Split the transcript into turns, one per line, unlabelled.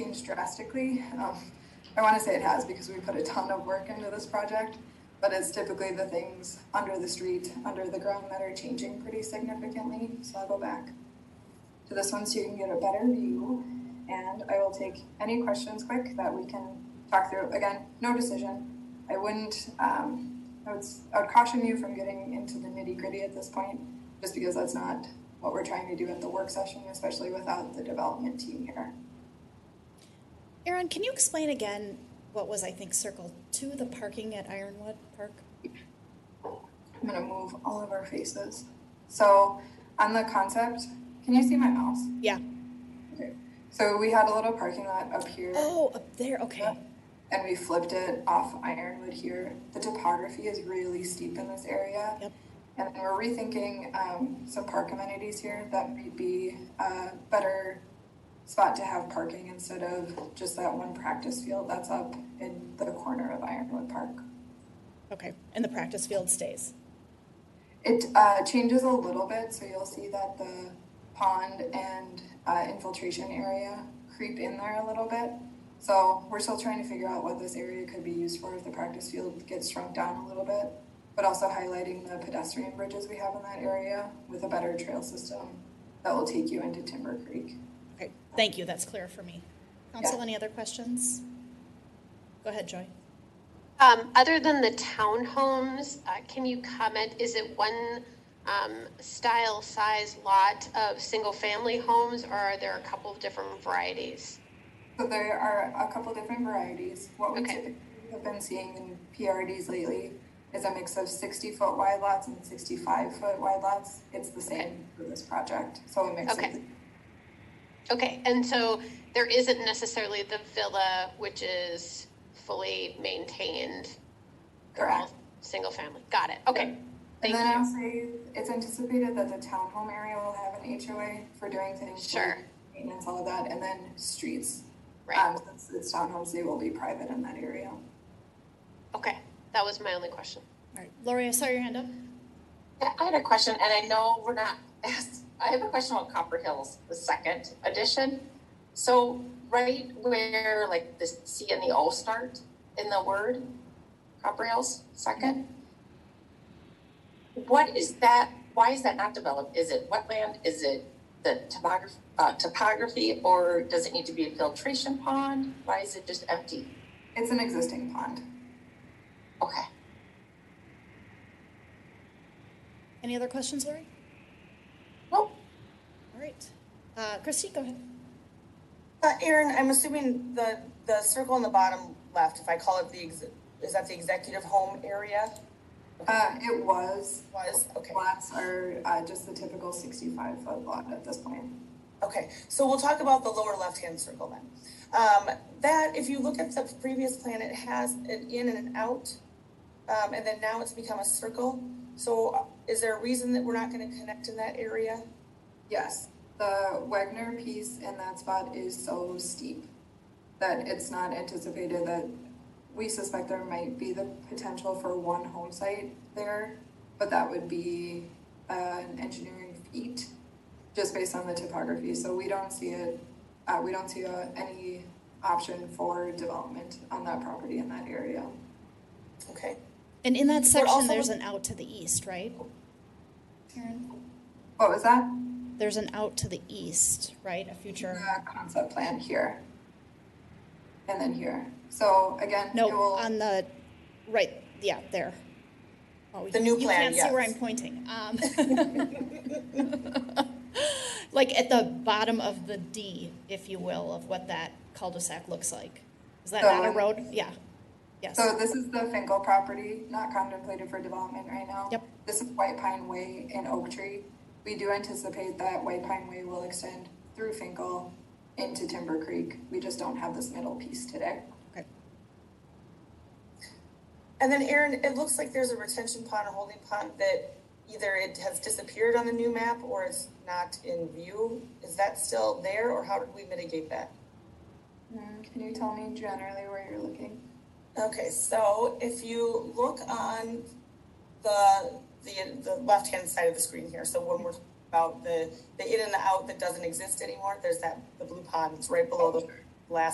changed drastically. Um, I want to say it has because we put a ton of work into this project, but it's typically the things under the street, under the ground that are changing pretty significantly. So I'll go back to this one so you can get a better view. And I will take any questions quick that we can talk through. Again, no decision. I wouldn't, um, I would, s- I would caution you from getting into the nitty gritty at this point, just because that's not what we're trying to do at the work session, especially without the development team here.
Aaron, can you explain again what was, I think, circled to the parking at Ironwood Park?
I'm gonna move all of our faces. So on the concept, can you see my mouse?
Yeah.
Okay. So we had a little parking lot up here.
Oh, up there, okay.
and we flipped it off Ironwood here. The topography is really steep in this area.
Yep.
And we're rethinking um, some park amenities here that might be a better spot to have parking instead of just that one practice field that's up in the corner of Ironwood Park.
Okay, and the practice field stays.
It uh, changes a little bit, so you'll see that the pond and uh, infiltration area creep in there a little bit. So we're still trying to figure out what this area could be used for if the practice field gets shrunk down a little bit, but also highlighting the pedestrian bridges we have in that area with a better trail system that will take you into Timber Creek.
Okay, thank you, that's clear for me. Council,
Yeah.
any other questions? Go ahead, Joy.
Um, other than the townhomes, uh, can you comment, is it one, um, style, size, lot of single-family homes, or are there a couple of different varieties?
So there are a couple different varieties. What we
Okay.
typically have been seeing in PRDs lately is a mix of sixty foot wide lots and sixty five foot wide lots. It's the same for this project, so a mix of.
Okay. Okay, and so there isn't necessarily the villa, which is fully maintained,
Correct.
single-family, got it, okay,
And
thank
then I'll
you.
say, it's anticipated that the townhome area will have an HOA for doing things.
Sure.
like Maintenance, all of that, and then streets.
Right,
Um, since it's townhomes, they will be private in that area.
okay, that was my only question.
All right, Lori, I saw your hand up.
Yeah, I had a question, and I know we're not, I have a question about Copper Hills, the second edition. So right where like the C and the O start in the word, Copper Hills, second? What is that, why is that not developed? Is it wetland? Is it the topography, uh, topography, or does it need to be a filtration pond? Why is it just empty?
It's an existing pond.
Okay.
Any other questions, Lori?
Nope.
All right. Uh, Christy, go ahead.
Uh, Aaron, I'm assuming the, the circle in the bottom left, if I call it the, ex- is that the executive home area?
Uh, it was,
Was, okay,
lots are, uh, just the typical sixty-five foot lot at this point.
okay, so we'll talk about the lower left-hand circle then. Um, that, if you look at the previous plan, it has an in and an out, um, and then now it's become a circle. So uh, is there a reason that we're not gonna connect in that area?
Yes, the Wagner piece in that spot is so steep that it's not anticipated that, we suspect there might be the potential for one home site there, but that would be uh, an engineering feat just based on the topography, so we don't see it, uh, we don't see uh, any option for development on that property in that area.
Okay,
And in that section,
also-
there's an out to the east, right? Aaron,
What was that?
there's an out to the east, right? A future,
The concept plan here. And then here, so again, it
no,
will.
on the, right, yeah, there. Oh,
The
you-
new plan,
You can't see where
yes.
I'm pointing. Um, Like at the bottom of the D, if you will, of what that cul-de-sac looks like. Is that not a
So-
road? Yeah, yes.
So this is the Finkel property, not contemplated for development right now.
Yep.
This is White Pine Way and Oak Tree. We do anticipate that White Pine Way will extend through Finkel into Timber Creek. We just don't have this middle piece today.
Okay.
and then Aaron, it looks like there's a retention pond, a holding pond that either it has disappeared on the new map or it's not in view. Is that still there, or how did we mitigate that?
Mm, Can you tell me generally where you're looking?
Okay, so if you look on the, the, the left-hand side of the screen here, so when we're about the, the in and the out that doesn't exist anymore, there's that, the blue pond, it's right below the